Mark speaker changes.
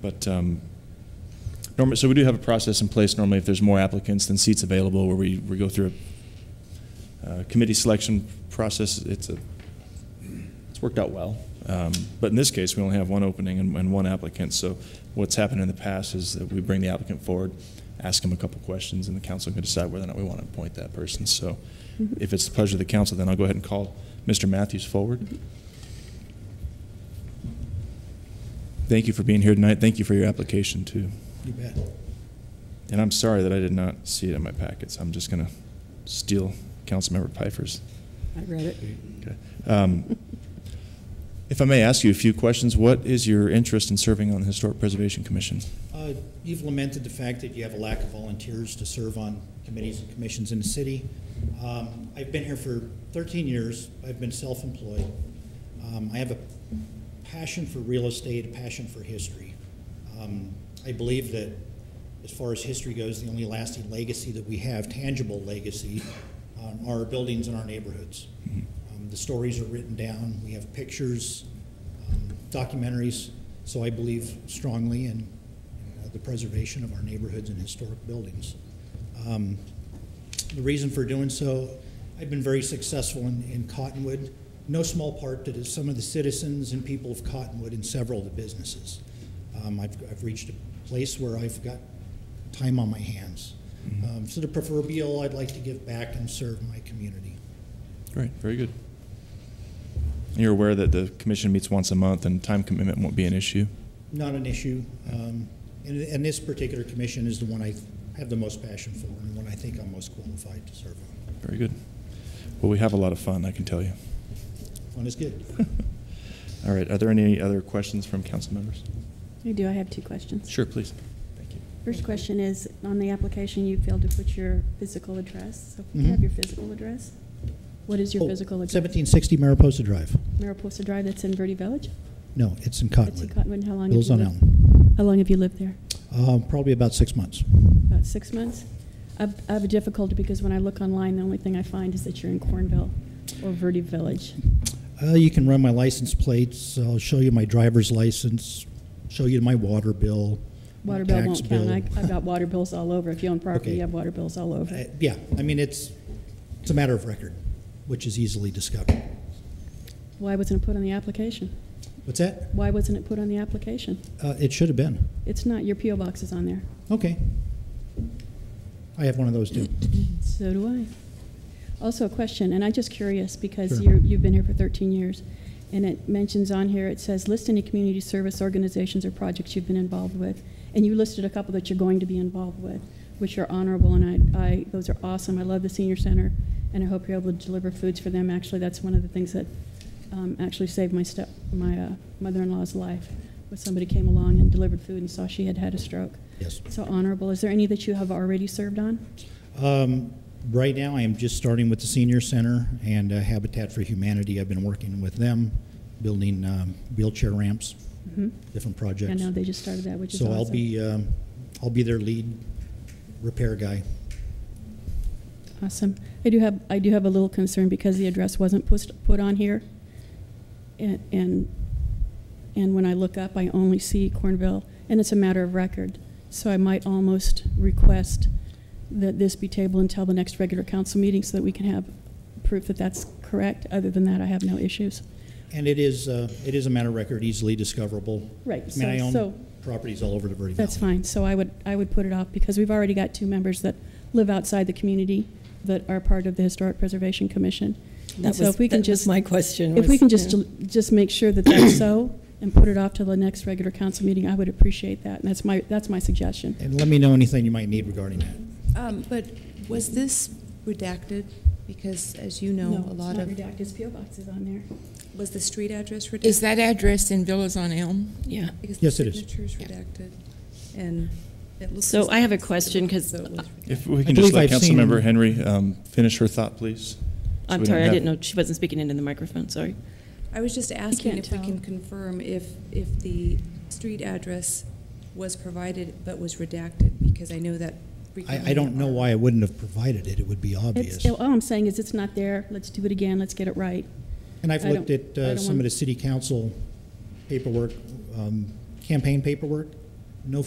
Speaker 1: But um, normally, so we do have a process in place normally if there's more applicants than seats available, where we, we go through a uh, committee selection process. It's a it's worked out well. Um, But in this case, we only have one opening and, and one applicant, so what's happened in the past is that we bring the applicant forward, ask them a couple questions, and the council can decide whether or not we want to appoint that person. So if it's the pleasure of the council, then I'll go ahead and call Mr. Matthews forward. Thank you for being here tonight. Thank you for your application, too.
Speaker 2: You bet.
Speaker 1: And I'm sorry that I did not see it in my packets. I'm just going to steal Councilmember Pfeiffer's.
Speaker 3: I read it.
Speaker 1: Okay. Um, If I may ask you a few questions, what is your interest in serving on the Historic Preservation Commission?
Speaker 2: Uh, You've lamented the fact that you have a lack of volunteers to serve on committees and commissions in the city. Um, I've been here for 13 years. I've been self-employed. Um, I have a passion for real estate, a passion for history. Um, I believe that, as far as history goes, the only lasting legacy that we have, tangible legacy, um, are our buildings and our neighborhoods. Um, The stories are written down. We have pictures, um, documentaries. So I believe strongly in uh, the preservation of our neighborhoods and historic buildings. Um, The reason for doing so, I've been very successful in in Cottonwood, no small part to the- some of the citizens and people of Cottonwood and several of the businesses. Um, I've I've reached a place where I've got time on my hands. Um, So the proverbial, I'd like to give back and serve my community.
Speaker 1: Great, very good. You're aware that the commission meets once a month and time commitment won't be an issue?
Speaker 2: Not an issue, um, and and this particular commission is the one I have the most passion for and the one I think I'm most qualified to serve on.
Speaker 1: Very good. Well, we have a lot of fun, I can tell you.
Speaker 2: One is good.
Speaker 1: All right, are there any other questions from council members?
Speaker 3: I do, I have two questions.
Speaker 1: Sure, please. Thank you.
Speaker 3: First question is, on the application, you failed to put your physical address. So can you
Speaker 2: Mhm.
Speaker 3: have your physical address? What is your
Speaker 2: Oh,
Speaker 3: physical address?
Speaker 2: 1760 Mariposa Drive.
Speaker 3: Mariposa Drive, that's in Verde Village?
Speaker 2: No, it's in
Speaker 3: It's in
Speaker 2: Cottonwood.
Speaker 3: Cottonwood, and how long? have
Speaker 2: Bills
Speaker 3: you
Speaker 2: on
Speaker 3: lived-
Speaker 2: Elm.
Speaker 3: How long have you lived there?
Speaker 2: Uh, Probably about six months.
Speaker 3: About six months? I've- I have a difficulty because when I look online, the only thing I find is that you're in Cornville or Verde Village.
Speaker 2: Uh, You can run my license plates, I'll show you my driver's license, show you my water bill, my
Speaker 3: Water bill
Speaker 2: tax
Speaker 3: won't count.
Speaker 2: bill.
Speaker 3: I- I've got water bills all over. If you own property,
Speaker 2: Okay.
Speaker 3: you have water bills all over.
Speaker 2: Uh, Yeah, I mean, it's, it's a matter of record, which is easily discovered.
Speaker 3: Why wasn't it put on the application?
Speaker 2: What's that?
Speaker 3: Why wasn't it put on the application?
Speaker 2: Uh, It should have been.
Speaker 3: It's not, your PO box is on there.
Speaker 2: Okay. I have one of those, too.
Speaker 3: So do I. Also a question, and I'm just curious because
Speaker 2: Sure.
Speaker 3: you're, you've been here for 13 years, and it mentions on here, it says, list any community service organizations or projects you've been involved with. And you listed a couple that you're going to be involved with, which are honorable, and I, I, those are awesome. I love the senior center, and I hope you're able to deliver foods for them. Actually, that's one of the things that um, actually saved my step, my uh, mother-in-law's life, was somebody came along and delivered food and saw she had had a stroke.
Speaker 2: Yes.
Speaker 3: So honorable. Is there any that you have already served on?
Speaker 2: Um, Right now, I am just starting with the senior center and uh, Habitat for Humanity. I've been working with them, building um, wheelchair ramps,
Speaker 3: Mm-hmm.
Speaker 2: different
Speaker 3: I
Speaker 2: projects.
Speaker 3: know they just started that, which is
Speaker 2: So
Speaker 3: awesome.
Speaker 2: I'll be, um, I'll be their lead repair guy.
Speaker 3: Awesome. I do have, I do have a little concern because the address wasn't put, put on here. And, and, and when I look up, I only see Cornville, and it's a matter of record. So I might almost request that this be tabled until the next regular council meeting so that we can have proof that that's correct. Other than that, I have no issues.
Speaker 2: And it is, uh, it is a matter of record, easily discoverable.
Speaker 3: Right,
Speaker 2: I mean, I
Speaker 3: so- so-
Speaker 2: own properties all over the Verde Valley.
Speaker 3: That's fine, so I would, I would put it off, because we've already got two members that live outside the community that are part of the Historic Preservation Commission. And
Speaker 4: That
Speaker 3: so
Speaker 4: was,
Speaker 3: if we
Speaker 4: that
Speaker 3: can
Speaker 4: was
Speaker 3: just,
Speaker 4: my question.
Speaker 3: if we
Speaker 4: was,
Speaker 3: can just,
Speaker 4: yeah.
Speaker 3: just make sure that that's so, and put it off till the next regular council meeting, I would appreciate that, and that's my, that's my suggestion.
Speaker 2: And let me know anything you might need regarding that.
Speaker 5: Um, But was this redacted? Because as you know, a lot of,
Speaker 3: It's PO boxes on there.
Speaker 5: was the street address redacted?
Speaker 6: Is that address in Villas on Elm?
Speaker 4: Yeah.
Speaker 5: Because
Speaker 2: Yes, it
Speaker 5: the
Speaker 2: is.
Speaker 5: signature's
Speaker 6: Yeah.
Speaker 5: redacted, and it looks.
Speaker 4: So
Speaker 5: as
Speaker 4: I have a
Speaker 5: though it
Speaker 4: question,
Speaker 5: was-
Speaker 4: 'cause
Speaker 5: though it was
Speaker 1: If we
Speaker 2: I
Speaker 1: can just let
Speaker 2: believe I've seen-
Speaker 1: Councilmember Henry um, finish her thought, please. So
Speaker 4: I'm
Speaker 1: we don't
Speaker 4: sorry, I
Speaker 1: have-
Speaker 4: didn't know, she wasn't speaking into the microphone, sorry.
Speaker 5: I was just asking
Speaker 3: can't
Speaker 5: if we
Speaker 3: tell.
Speaker 5: can confirm if, if the street address was provided but was redacted, because I know that frequently.
Speaker 2: I, I don't know why I wouldn't have provided it. It would be obvious.
Speaker 3: It's, oh, all I'm saying is, it's not there, let's do it again, let's get it right.
Speaker 2: And I've
Speaker 3: I
Speaker 2: looked
Speaker 3: don't-
Speaker 2: at uh,
Speaker 3: I don't
Speaker 2: some
Speaker 3: want-
Speaker 2: of the city council paperwork, um, campaign paperwork,